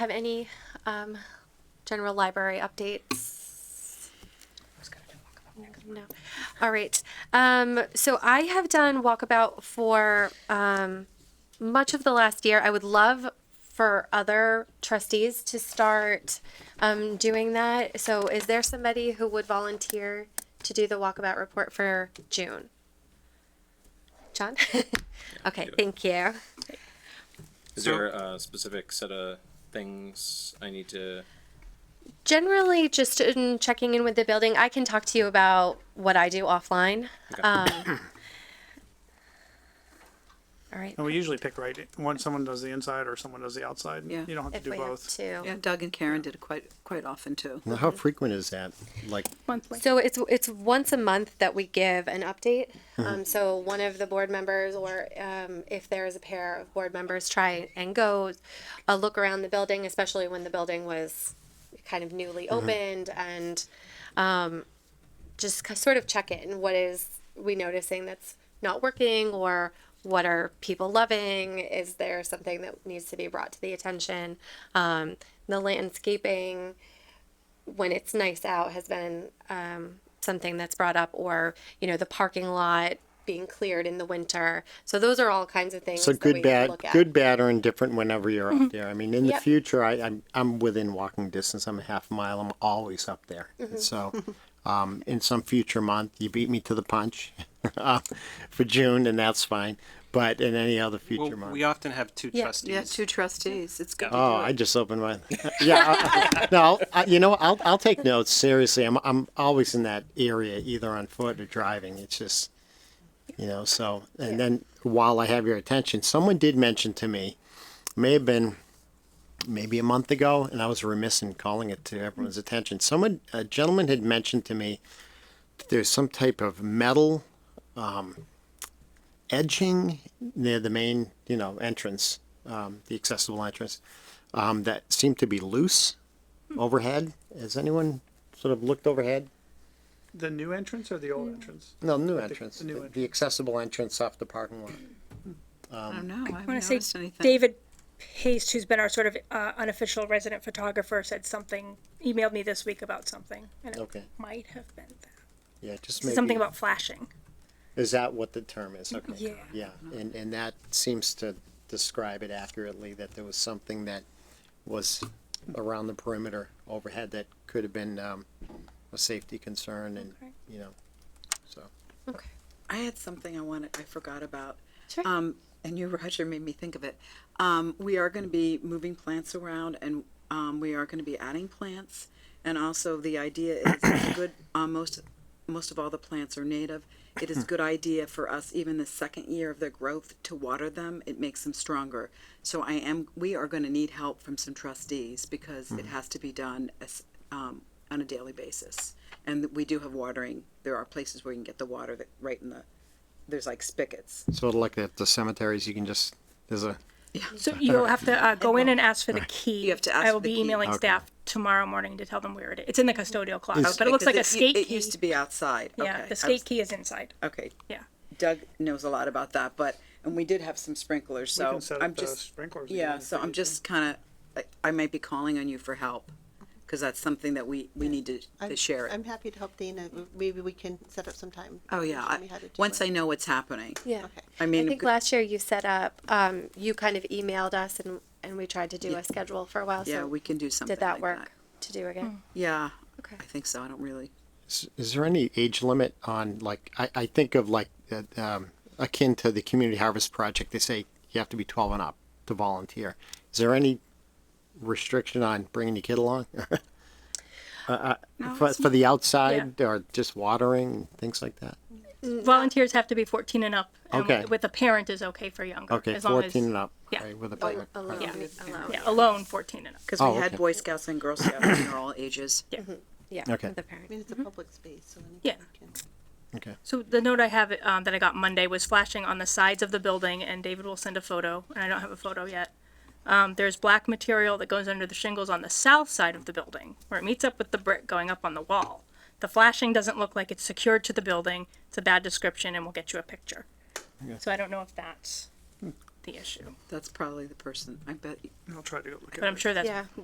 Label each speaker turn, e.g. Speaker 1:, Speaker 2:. Speaker 1: Have any um, general library updates? No. All right. Um, so I have done walkabout for um, much of the last year. I would love for other trustees to start um, doing that. So is there somebody who would volunteer to do the walkabout report for June? John? okay,
Speaker 2: do it.
Speaker 1: thank you.
Speaker 2: Is there a specific set of things I need to?
Speaker 1: generally just in checking in with the building i can talk to you about what i do offline
Speaker 2: Okay.
Speaker 1: um, all right
Speaker 3: And Oh, we usually pick right when someone does the inside or someone does the outside.
Speaker 4: Yeah.
Speaker 3: You don't have to
Speaker 1: if
Speaker 3: do
Speaker 1: we have
Speaker 3: both.
Speaker 1: to
Speaker 4: Yeah, Doug and Karen did it quite, quite often too.
Speaker 5: Now, how frequent is that? Like,
Speaker 6: monthly.
Speaker 1: so it's it's once a month that we give an update um, so one of the board members or um, if there is a pair of board members try and go a look around the building especially when the building was kind of newly
Speaker 5: Mm-hmm.
Speaker 1: opened and um, just ki- sort of check in what is we noticing that's not working or what are people loving is there something that needs to be brought to the attention um, the landscaping when it's nice out has been um, something that's brought up or you know the parking lot being cleared in the winter so those are all kinds of things
Speaker 5: so
Speaker 1: that we
Speaker 5: good,
Speaker 1: have to
Speaker 5: bad,
Speaker 1: look at. Mm-hmm.
Speaker 5: good, bad, or indifferent whenever you're up there. I mean, in the
Speaker 1: Yep.
Speaker 5: future, I, I'm, I'm within walking distance. I'm a half mile. I'm always up there.
Speaker 1: Mm-hmm.
Speaker 5: And So, um, in some future month, you beat me to the punch uh, for June, and that's fine. But in any other future
Speaker 7: Well,
Speaker 5: month.
Speaker 7: we often have two
Speaker 1: Yeah.
Speaker 7: trustees.
Speaker 4: Yeah, two trustees. It's good to
Speaker 5: Oh,
Speaker 4: do
Speaker 5: I
Speaker 4: it.
Speaker 5: just opened my. Yeah, I- I- no, I'll- I, you know, I'll I'll take notes seriously. I'm I'm always in that area, either on foot or driving. It's just, you know. So and then while I have your attention, someone did mention to me, may have been, maybe a month ago, and I was remiss in calling it to everyone's
Speaker 4: Mm-hmm.
Speaker 5: attention. Someone, a gentleman, had mentioned to me, that there's some type of metal, um, edging near the main, you know, entrance, um, the accessible entrance um, that seem to be loose overhead. Has anyone sort of looked overhead?
Speaker 3: The new entrance or the
Speaker 4: Mm.
Speaker 3: old entrance?
Speaker 5: No, new entrance,
Speaker 3: the new
Speaker 5: the,
Speaker 3: entrance.
Speaker 5: accessible entrance off the parking lot.
Speaker 4: I
Speaker 5: um,
Speaker 4: don't know. I
Speaker 6: I want
Speaker 4: haven't
Speaker 6: to
Speaker 4: noticed
Speaker 6: say
Speaker 4: anything.
Speaker 6: David Pace, who's been our sort of uh, unofficial resident photographer, said something, emailed me this week about something. And it
Speaker 5: Okay.
Speaker 6: might have been that.
Speaker 5: Yeah, just maybe.
Speaker 6: something about flashing.
Speaker 5: Is that what the term is? Okay.
Speaker 6: Yeah.
Speaker 5: Yeah, and, and that seems to describe it accurately, that there was something that was around the perimeter overhead that could have been, um, a safety concern and,
Speaker 6: Okay.
Speaker 5: you know, so.
Speaker 1: okay
Speaker 4: I had something I wanted, I forgot about.
Speaker 1: Sure.
Speaker 4: Um, and you, Roger, made me think of it. Um, we are going to be moving plants around and, um, we are going to be adding plants. And also the idea is it's a good, um, most, most of all the plants are native. It is a good idea for us, even the second year of their growth, to water them. It makes them stronger. So I am, we are going to need help from some trustees because it has to be done as, um, on a daily basis. And we do have watering. There are places where you can get the water that right in the there's like spigots.
Speaker 5: Sort of like at the cemeteries, you can just, there's a,
Speaker 6: So you'll have to uh, go in and ask for the key.
Speaker 4: You have to ask
Speaker 6: I will
Speaker 4: for the
Speaker 6: be
Speaker 4: key.
Speaker 6: emailing
Speaker 5: Okay.
Speaker 6: staff tomorrow morning to tell them where it is. It's in the custodial closet, Oh, but it looks
Speaker 4: Because
Speaker 6: like a skate
Speaker 4: It
Speaker 6: key.
Speaker 4: used to be outside.
Speaker 6: yeah,
Speaker 4: Okay. I
Speaker 6: the skate
Speaker 4: was-
Speaker 6: key is inside.
Speaker 4: Okay,
Speaker 6: Yeah.
Speaker 4: Doug knows a lot about that, but and we did have some sprinklers,
Speaker 3: We
Speaker 4: so
Speaker 3: can set
Speaker 4: I'm
Speaker 3: up the
Speaker 4: just
Speaker 3: sprinklers.
Speaker 4: yeah.
Speaker 3: again if
Speaker 4: So
Speaker 3: we
Speaker 4: I'm
Speaker 3: need to.
Speaker 4: just kind of I, I might be calling on you for help because that's something that we we need to,
Speaker 8: I'm-
Speaker 4: to share it.
Speaker 8: I'm happy to help Dana. Maybe we can set up some time.
Speaker 4: oh
Speaker 8: to
Speaker 4: yeah,
Speaker 8: show
Speaker 4: I,
Speaker 8: me how to do
Speaker 4: once
Speaker 8: it.
Speaker 4: I know what's happening.
Speaker 1: yeah
Speaker 8: Okay.
Speaker 4: I
Speaker 1: I
Speaker 4: mean,
Speaker 1: think
Speaker 4: g-
Speaker 1: last year you set up, um, you kind of emailed us and, and we tried to do a schedule for a while.
Speaker 4: yeah,
Speaker 1: so
Speaker 4: we can do something.
Speaker 1: did that
Speaker 4: like
Speaker 1: work to do again?
Speaker 4: Yeah,
Speaker 1: Okay.
Speaker 4: I think so. I don't really.
Speaker 5: Is, is there any age limit on like I, I think of like uh, um, akin to the community harvest project? They say you have to be twelve and up to volunteer. Is there any restriction on bringing your kid along uh, uh, for, for the outside or just watering things like that?
Speaker 6: Mm, Volunteers have to be 14 and up. And
Speaker 5: Okay.
Speaker 6: With a parent is okay for younger.
Speaker 5: Okay,
Speaker 6: as long as,
Speaker 5: fourteen and up.
Speaker 6: Oh, yeah.
Speaker 5: right, with a parent.
Speaker 1: Alone,
Speaker 6: Yeah.
Speaker 1: alone.
Speaker 6: Yeah, alone 14 and up.
Speaker 4: Because
Speaker 5: Oh,
Speaker 4: we had
Speaker 5: okay.
Speaker 4: Boy Scouts and Girl Scouts, and they're all ages.
Speaker 1: Yeah.
Speaker 5: Okay.
Speaker 1: with The
Speaker 8: I
Speaker 1: parent.
Speaker 8: mean,
Speaker 4: Mm-hmm.
Speaker 8: it's a public space, so
Speaker 6: Yeah.
Speaker 8: anybody can.
Speaker 5: Okay.
Speaker 6: So the note I have um, that I got Monday was flashing on the sides of the building, and David will send a photo, and I don't have a photo yet. Um, there's black material that goes under the shingles on the south side of the building, where it meets up with the brick going up on the wall. The flashing doesn't look like it's secured to the building. It's a bad description, and we'll get you a picture. So I don't know if that's
Speaker 3: the issue.
Speaker 9: That's probably the person. I bet
Speaker 4: I'll try to go look at it.
Speaker 3: But I'm sure that's
Speaker 6: Yeah.